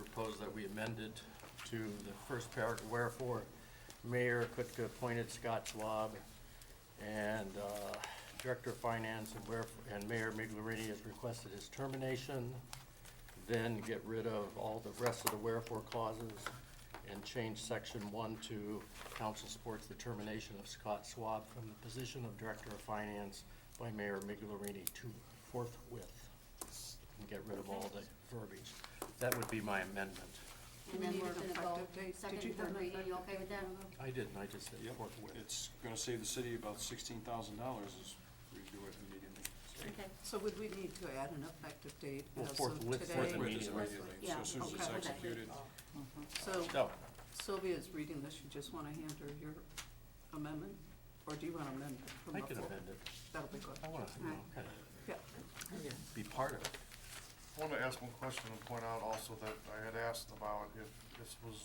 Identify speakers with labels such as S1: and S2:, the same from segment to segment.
S1: propose that we amend it to the first paragraph, wherefore Mayor Kutka appointed Scott Schwab and uh, Director of Finance and wherefore, and Mayor Miglerini has requested his termination, then get rid of all the rest of the wherefore clauses and change section one to council supports the termination of Scott Schwab from the position of Director of Finance by Mayor Miglerini to forthwith and get rid of all the verbiage. That would be my amendment.
S2: And
S3: we
S2: then
S3: need
S2: we're
S3: an
S2: gonna go
S3: effective date? Did
S2: second,
S3: you
S2: and
S3: have
S2: third
S3: an
S2: reading, you okay
S3: effective
S2: with that?
S1: I didn't, I just said
S4: Yep,
S1: forthwith.
S4: it's gonna save the city about sixteen thousand dollars as we do it immediately. So
S2: Okay,
S3: So would we need to add an effective date
S1: Well,
S3: as of
S1: forthwith,
S3: today?
S4: Forthwith is
S1: Immediately.
S4: immediately, so
S2: Yeah,
S4: as soon as it's
S3: okay.
S4: executed.
S3: So
S1: So,
S3: Sylvia's reading this, you just wanna hand her your amendment, or do you wanna amend it from
S1: I
S3: the
S1: can
S3: floor?
S1: amend it.
S3: That'll be good.
S1: I want to, you know, kind
S3: Yeah,
S1: of be part of it.
S5: I want to ask one question and point out also that I had asked about if this was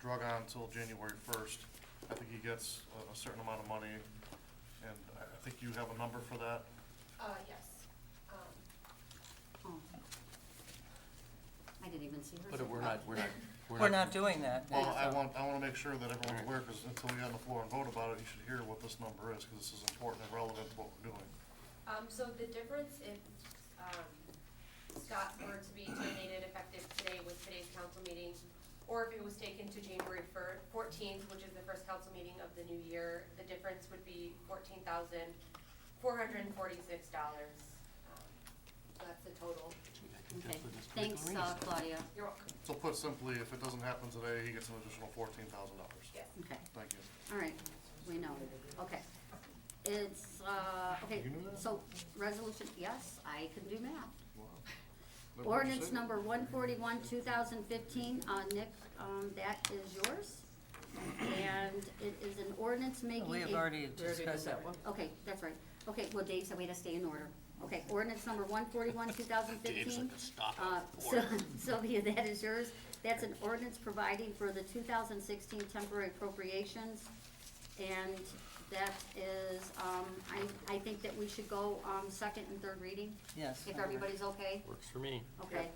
S5: drug on until January first. I think he gets a- a certain amount of money, and I I think you have a number for that.
S2: Uh, yes.
S6: Um,
S3: oh,
S2: I didn't even see her. Oh,
S1: But we're not, we're not, we're not.
S7: We're not doing that.
S5: Well, I want, I want to make sure that everyone's aware, because until we get on the floor and vote about it, you should hear what this number is, because this is important and relevant to what we're doing.
S6: Um, so the difference if, um, Scott were to be terminated effective today with today's council meeting, or if it was taken to January fir- fourteenth, which is the first council meeting of the new year, the difference would be fourteen thousand, four hundred and forty-six dollars. Um, That's the total.
S2: Okay, thanks, uh, Claudia.
S6: You're welcome.
S5: So put simply, if it doesn't happen today, he gets an additional fourteen thousand dollars.
S6: Yes.
S2: Okay,
S5: Thank you.
S2: all right, we know, okay. It's, uh, okay,
S5: You knew that?
S2: so resolution, yes, I can do math.
S5: Wow. That was
S2: Ordinance
S5: it.
S2: number one forty-one, two thousand fifteen, uh, Nick, um, that is yours. And it is an ordinance making
S7: We have
S2: a-
S7: already
S3: we already did
S7: discussed that.
S3: that one.
S2: Okay, that's right. Okay, well, Dave said we had to stay in order. Okay, ordinance number one forty-one, two thousand
S1: Dave's
S2: fifteen.
S1: like, stop
S2: Uh,
S1: it.
S2: Syl- Sylvia, that is yours. That's an ordinance providing for the two thousand sixteen temporary appropriations. And that is, um, I, I think that we should go, um, second and third reading,
S7: Yes.
S2: if everybody's okay.
S1: Works for me.
S2: Okay.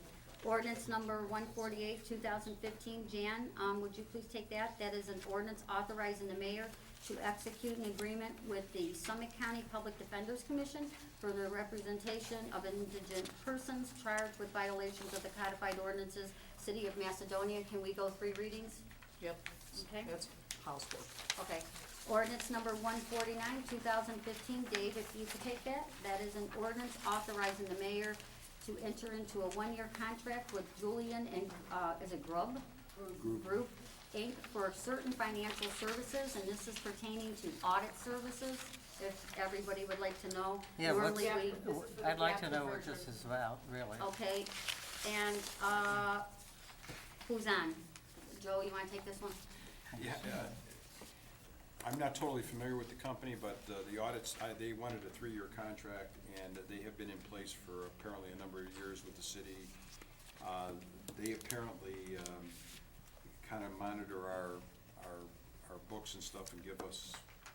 S2: Ordinance number one forty-eight, two thousand fifteen, Jan, um, would you please take that? That is an ordinance authorizing the mayor to execute an agreement with the Summit County Public Defenders Commission for the representation of indigent persons charged with violations of the codified ordinances, City of Macedonia. Can we go three readings?
S3: Yep,
S2: Okay.
S3: that's housework.
S2: Okay. Ordinance number one forty-nine, two thousand fifteen, Dave, if you could take that, that is an ordinance authorizing the mayor to enter into a one-year contract with Julian and, uh, is it Grub? Group, Inc., for certain financial services, and this is pertaining to audit services, if everybody would like to know.
S7: Yeah, what's,
S2: Normally we-
S7: I'd like to know what this is about, really.
S2: Okay, and, uh, who's on? Joe, you wanna take this one?
S4: Yeah, uh, I'm not totally familiar with the company, but uh, the audits, I- they wanted a three-year contract, and they have been in place for apparently a number of years with the city. Uh, They apparently kind of monitor our, our, our books and stuff and give us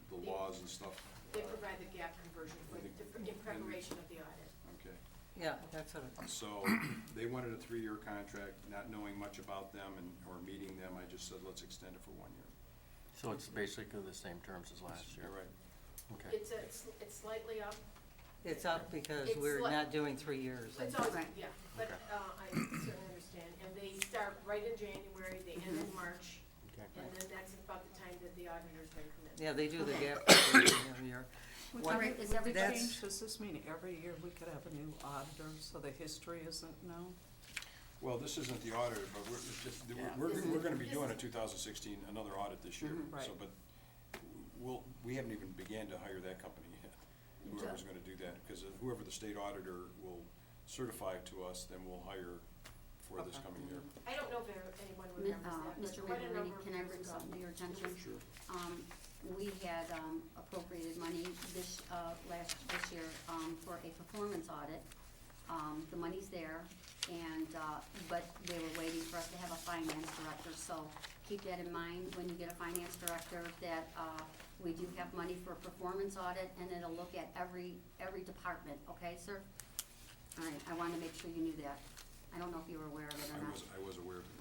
S4: the laws and stuff.
S8: They provide the gap conversion for, in preparation of the audit.
S4: Okay.
S7: Yeah, that's what, it-
S4: So they wanted a three-year contract, not knowing much about them and, or meeting them, I just said, let's extend it for one year.
S1: So it's basically the same terms as last year.
S4: You're right.
S1: Okay.
S8: It's, a- it's it's slightly up,
S7: it's up because
S8: It's
S7: we're
S8: like-
S7: not doing three years.
S8: it's always,
S2: Right.
S8: yeah, but uh, I certainly understand. And they start right in January, they end in March,
S1: Okay.
S8: and then that's about the time that the auditors then come in.
S7: Yeah, they do the
S2: Okay.
S7: gap every year.
S3: Would
S7: All
S3: you-
S2: right, is
S3: would
S2: everybody-
S3: that change- Does this mean every year we could have a new auditor, so the history isn't known?
S4: Well, this isn't the auditor, but we're, it's just, we're, we're- we're gonna be doing a two thousand sixteen, another audit this year.
S3: Mm-hmm. Right.
S4: So, but we'll, we haven't even began to hire that company yet, whoever's gonna do that, because whoever the state auditor will certify to us, then we'll hire for this
S3: Okay. Mm-hmm.
S4: coming year.
S8: I don't know if anyone
S2: Mi-
S8: remembers
S2: uh,
S8: that, but
S2: Mr.
S8: quite a
S2: Waverly,
S8: number of
S2: can I
S8: years
S2: bring
S8: ago.
S2: something to your attention?
S4: Sure.
S2: Um, we had, um, appropriated money this, uh, last, this year, um, for a performance audit. Um, the money's there, and, uh, but they were waiting for us to have a finance director, so keep that in mind when you get a finance director, that, uh, we do have money for a performance audit, and it'll look at every, every department, okay, sir? All right, I wanted to make sure you knew that. I don't know if you were aware of it
S4: I
S2: or not.
S4: was, I was aware of it.